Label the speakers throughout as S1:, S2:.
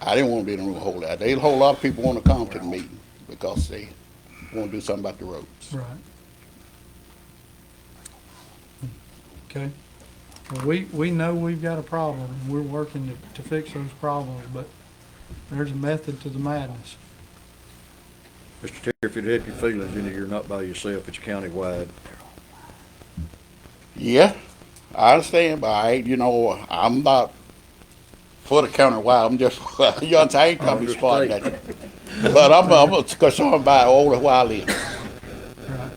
S1: I didn't want to be in the room a whole lot. They, a whole lot of people want to come to the meeting because they want to do something about the roads.
S2: Right. Okay. Well, we, we know we've got a problem, and we're working to, to fix those problems, but there's a method to the madness.
S3: Mr. Terry, if it help your feelings, you know, you're not by yourself, it's countywide.
S1: Yeah, I understand, but I, ain't, you know, I'm not for the countywide. I'm just, you know, I ain't coming to spot that. But I'm, I'm concerned about older where I live
S2: Right.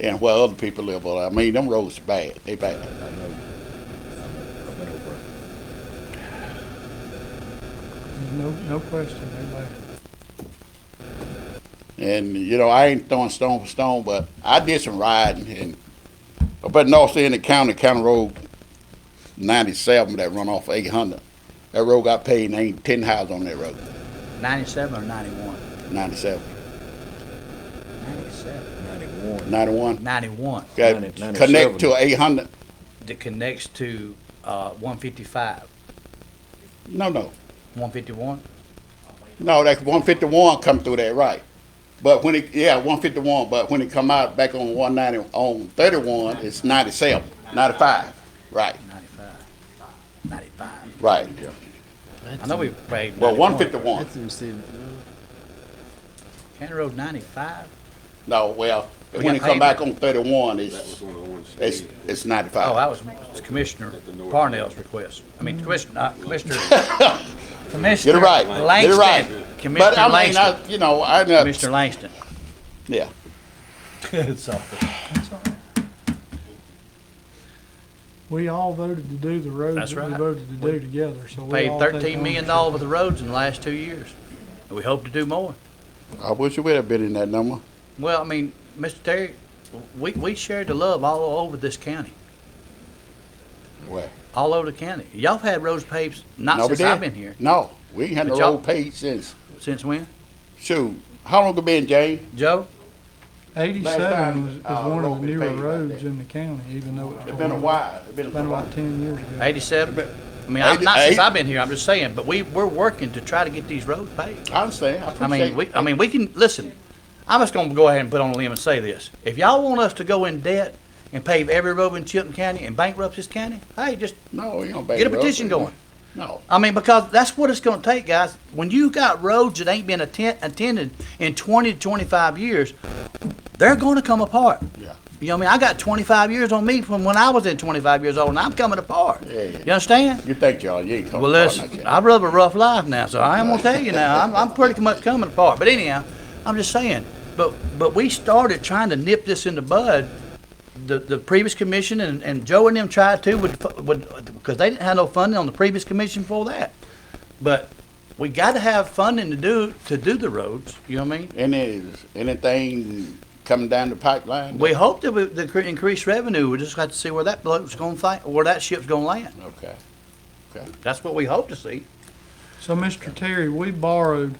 S1: and where other people live. But I mean, them roads bad. They bad.
S3: I know. I've been over it.
S2: There's no, no question, they're bad.
S1: And you know, I ain't throwing stone for stone, but I did some riding and up at North End of County, County Road ninety-seven that run off eight hundred. That road got paved and ain't ten houses on that road,
S4: 97 or 91?
S1: ninety-seven,
S4: 97.
S3: Ninety-one.
S1: ninety-one.
S4: 91
S1: Got
S3: Ninety-
S1: connect
S3: 97.
S1: to eight hundred,
S4: that connects to uh, 155,
S1: no, no,
S4: 151?
S1: no, that one fifty-one come through that right. But when it, yeah, one fifty-one, but when it come out back on one ninety, on thirty-one, it's 97, 95. right,
S4: 95. 95.
S1: right.
S4: I know we paid.
S1: Well,
S4: 91.
S1: one fifty-one.
S4: County Road 95?
S1: No, well,
S4: We
S1: when
S4: got
S1: it come
S4: paid.
S1: back on thirty-one, it's, it's, it's
S4: Oh,
S1: ninety-five.
S4: that was Commissioner Parnell's request. I mean, Commissioner, not Commissioner.
S1: Get
S4: Commissioner
S1: it right, get it right.
S4: Langston.
S1: But
S4: Commissioner
S1: I mean,
S4: Langston.
S1: I, you know, I,
S4: Commissioner
S1: know-
S4: Langston.
S1: yeah,
S2: We all voted to do the roads
S4: That's
S2: that we
S4: right.
S2: voted to do together, so we
S4: Paid
S2: all.
S4: $13 million for the roads in the last two years. And we hope to do more.
S1: I wish you would have been in that number.
S4: Well, I mean, Mr. Terry, we, we shared the love all over this county,
S1: Well,
S4: all over the county. Y'all had roads paved not
S1: no, we
S4: since I've
S1: didn't.
S4: been here.
S1: No, we ain't had
S4: But
S1: no
S4: y'all-
S1: road paid since,
S4: Since when?
S1: shoot, how long it been, Jane?
S4: Joe?
S1: Last
S2: Eighty-seven
S1: time,
S2: was, is
S1: uh,
S2: one of
S1: road
S2: the
S1: we
S2: newer
S1: paved out
S2: roads
S1: there.
S2: in the county, even though it's.
S1: It's been a while, it's been a
S2: Been
S1: while.
S2: about ten years ago.
S4: 87? I mean, I- not since
S1: Eighty-
S4: I've been here, I'm just saying, but we, we're working to try to get these roads paved.
S1: I understand, I
S4: I
S1: appreciate.
S4: mean, we, I mean, we can, listen, I'm just gonna go ahead and put on a limb and say this. If y'all want us to go in debt and pave every road in Chilton County and bankrupt this county, hey, just
S1: No, you don't back
S4: get a
S1: it up.
S4: petition going.
S1: No,
S4: I mean, because that's what it's gonna take, guys. When you got roads that ain't been atten- attended in twenty to twenty-five years, they're gonna come apart.
S1: yeah,
S4: You know what I mean? I got twenty-five years on me from when I was in twenty-five years old, and I'm coming apart.
S1: Yeah, yeah.
S4: You understand?
S1: you think y'all, you ain't coming
S4: Well,
S1: apart like
S4: listen, I
S1: that.
S4: live a rough life now, so I am gonna tell you now, I'm, I'm pretty much coming apart. But anyhow, I'm just saying, but, but we started trying to nip this in the bud. The, the previous commission and, and Joe and them tried to with, fu- with, because they didn't have no funding on the previous commission for that. But we gotta have funding to do, to do the roads, you know what I mean?
S1: Any, anything coming down the pipeline?
S4: We hope that with the cre- increased revenue, we just got to see where that boat's gonna fight, where that ship's gonna land.
S1: Okay, okay.
S4: That's what we hope to see.
S2: So, Mr. Terry, we borrowed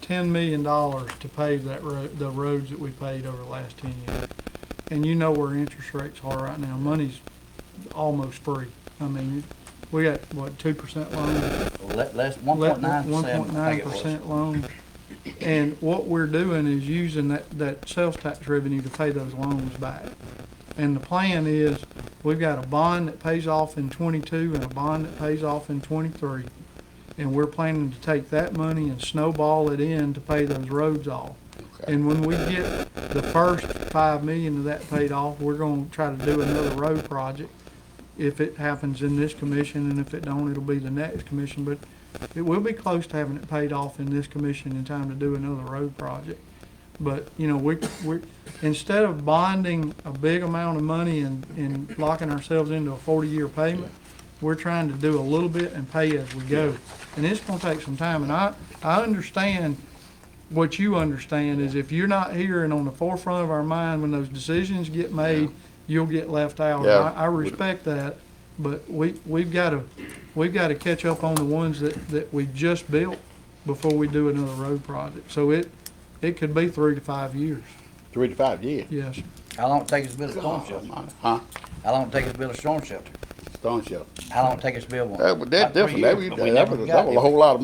S2: ten million dollars to pave that road, the roads that we paved over the last ten years. And you know where interest rates are right now. Money's almost free. I mean, we got, what, two percent loan?
S4: Let, let's, one point nine
S2: One point
S4: percent, I
S2: nine
S4: think it was.
S2: percent loan. And what we're doing is using that, that sales tax revenue to pay those loans back. And the plan is, we've got a bond that pays off in twenty-two and a bond that pays off in twenty-three. And we're planning to take that money and snowball it in to pay those roads off.
S1: Okay.
S2: And when we get the first five million of that paid off, we're gonna try to do another road project. If it happens in this commission, and if it don't, it'll be the next commission, but it will be close to having it paid off in this commission in time to do another road project. But, you know, we, we, instead of bonding a big amount of money and, and locking ourselves into a forty-year payment, we're trying to do a little bit and pay as we go. And it's gonna take some time, and I, I understand what you understand is if you're not here and on the forefront of our mind when those decisions get made, you'll get left out. And
S1: Yeah.
S2: I, I respect that, but we, we've gotta, we've gotta catch up on the ones that, that we just built before we do another road project. So it, it could be three to five years,
S1: Three to five years.
S2: yes.
S4: How long it take us to build a storm shelter?
S1: Huh?
S4: How long it take us to build a storm shelter?
S1: Stone Show.
S4: How long it take us to build one?
S1: That,
S4: About
S1: that
S4: three
S1: different.
S4: years,
S1: Uh, That, was-
S4: but we
S1: that
S4: never
S1: was,
S4: got
S1: that was
S4: it.
S1: a whole lot of